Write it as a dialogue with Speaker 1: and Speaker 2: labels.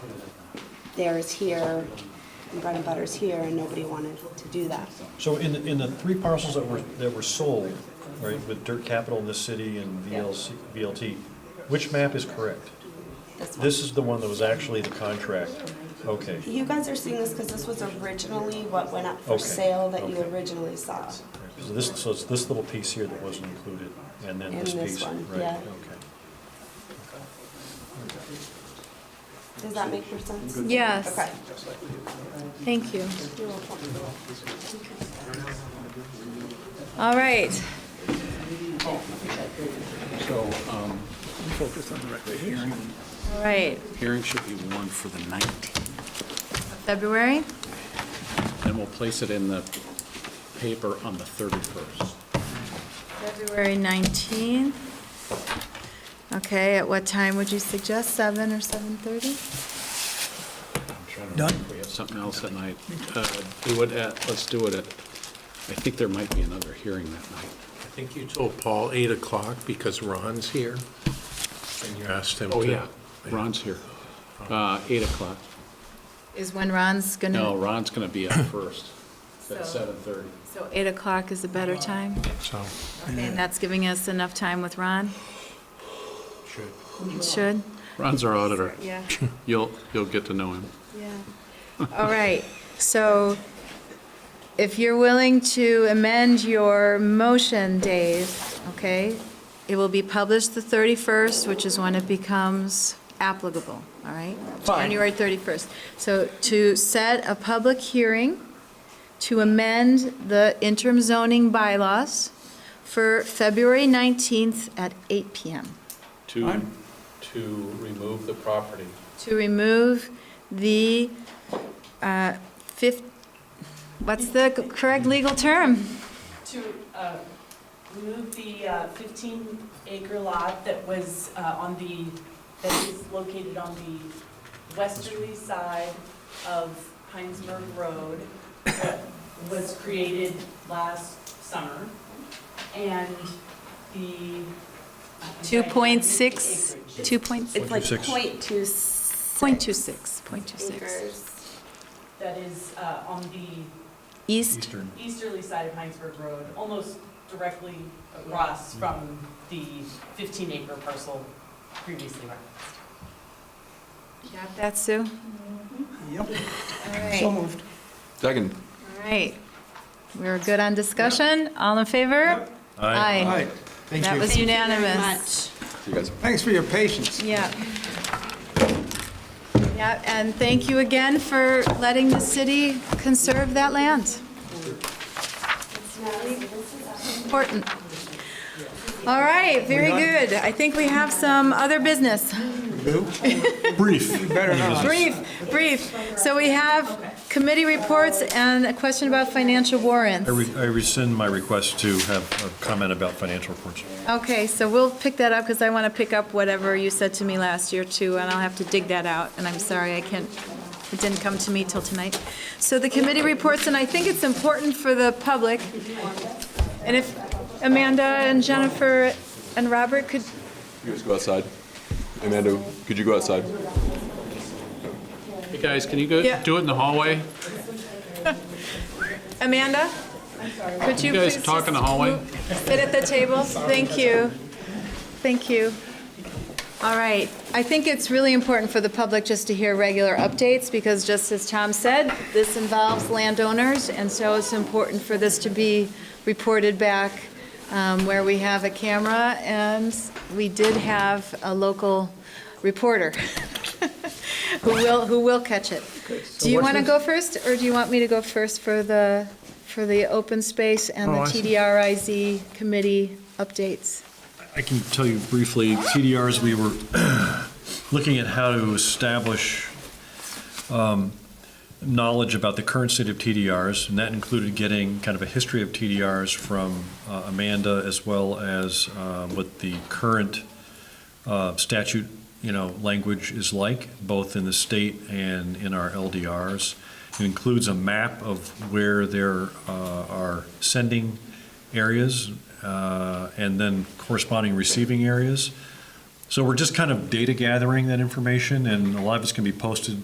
Speaker 1: there is here, and bread and butter is here, and nobody wanted to do that.
Speaker 2: So in, the- in the three parcels that were, that were sold, right, with Dirt Capital in this city and VLC, VLT, which map is correct?
Speaker 1: This one.
Speaker 2: This is the one that was actually the contract, okay.
Speaker 1: You guys are seeing this because this was originally what went up for
Speaker 2: Okay,
Speaker 1: sale that you
Speaker 2: okay.
Speaker 1: originally saw.
Speaker 2: So this, so it's this little piece here that wasn't included, and then
Speaker 1: And
Speaker 2: this
Speaker 1: this
Speaker 2: piece, right,
Speaker 1: one,
Speaker 2: okay.
Speaker 1: yeah. Does that make more sense?
Speaker 3: Yes,
Speaker 1: Okay.
Speaker 3: thank you.
Speaker 1: You're welcome.
Speaker 3: All right.
Speaker 4: So, um, focus on the record hearing.
Speaker 3: All right,
Speaker 4: Hearing should be warned for the 19th.
Speaker 3: February?
Speaker 4: Then we'll place it in the paper on the 31st.
Speaker 3: February 19th. Okay, at what time would you suggest, 7 or 7:30?
Speaker 4: Done. We have something else that night. Uh, Do it at, let's do it at, I think there might be another hearing that night.
Speaker 5: I think you told Paul 8 o'clock because Ron's here, and you asked him to.
Speaker 4: Oh, yeah, Ron's here. Uh, 8 o'clock.
Speaker 3: Is when Ron's gonna...
Speaker 4: No, Ron's going to be up first at
Speaker 3: So-
Speaker 4: 7:30.
Speaker 3: So 8 o'clock is a better time?
Speaker 5: So,
Speaker 3: Okay, and that's giving us enough time with Ron? It should?
Speaker 4: Ron's our auditor.
Speaker 3: Yeah,
Speaker 4: You'll, you'll get to know him.
Speaker 3: yeah. All right, so if you're willing to amend your motion, Dave, okay? It will be published the 31st, which is when it becomes applicable, all right? January 31st. So to set a public hearing to amend the interim zoning bylaws for February 19th at 8 PM.
Speaker 4: To, to remove the property.
Speaker 3: to remove the uh, fif, what's the c- correct legal term?
Speaker 6: to uh, remove the uh, 15 acre lot that was uh, on the, that is located on the westerly side of Heinsberg Road, that was created last summer, and the. I'm sorry,
Speaker 3: 2.6,
Speaker 6: acreage.
Speaker 3: 2.6,
Speaker 1: It's like
Speaker 2: 0.26.
Speaker 1: point two six.
Speaker 3: 0.26, 0.26.
Speaker 1: Acres.
Speaker 6: That is uh, on the
Speaker 3: East,
Speaker 2: Eastern.
Speaker 6: easterly side of Heinsberg Road, almost directly across from the 15 acre parcel previously referenced.
Speaker 3: got that, Sue? Yep. All right,
Speaker 7: Second.
Speaker 3: all right. We're good on discussion? All in favor? Aye.
Speaker 8: Right, thank
Speaker 3: That
Speaker 8: you.
Speaker 3: was unanimous.
Speaker 7: See you guys.
Speaker 8: Thanks for your patience.
Speaker 3: Yeah. Yeah, and thank you again for letting the city conserve that land. Important. All right, very good. I think we have some other business.
Speaker 5: Brief.
Speaker 8: Better not.
Speaker 3: Brief, brief. So we have committee reports and a question about financial warrants.
Speaker 2: I re- I rescind my request to have a comment about financial reports.
Speaker 3: Okay, so we'll pick that up because I want to pick up whatever you said to me last year too, and I'll have to dig that out. And I'm sorry, I can't, it didn't come to me till tonight. So the committee reports, and I think it's important for the public. And if Amanda and Jennifer and Robert could,
Speaker 7: You guys go outside. Amanda, could you go outside?
Speaker 4: Hey, guys, can you go,
Speaker 3: Yeah.
Speaker 4: do it in the hallway?
Speaker 3: Amanda? Could you
Speaker 4: You guys
Speaker 3: please
Speaker 4: talk in the
Speaker 3: just
Speaker 4: hallway?
Speaker 3: move- Sit at the table. Thank you. Thank you. All right. I think it's really important for the public just to hear regular updates because just as Tom said, this involves landowners and so it's important for this to be reported back um, where we have a camera and we did have a local reporter who will, who will catch it. Do you want to go first or do you want me to go first for the, for the open space and the
Speaker 5: Oh, I see.
Speaker 3: TDRIZ committee updates?
Speaker 2: I can tell you briefly, TDRs, we were looking at how to establish um, knowledge about the current state of TDRs, and that included getting kind of a history of TDRs from uh, Amanda, as well as uh, what the current uh, statute, you know, language is like, both in the state and in our LDRs. It includes a map of where there uh, are sending areas uh, and then corresponding receiving areas. So we're just kind of data gathering that information, and a lot of it's going to be posted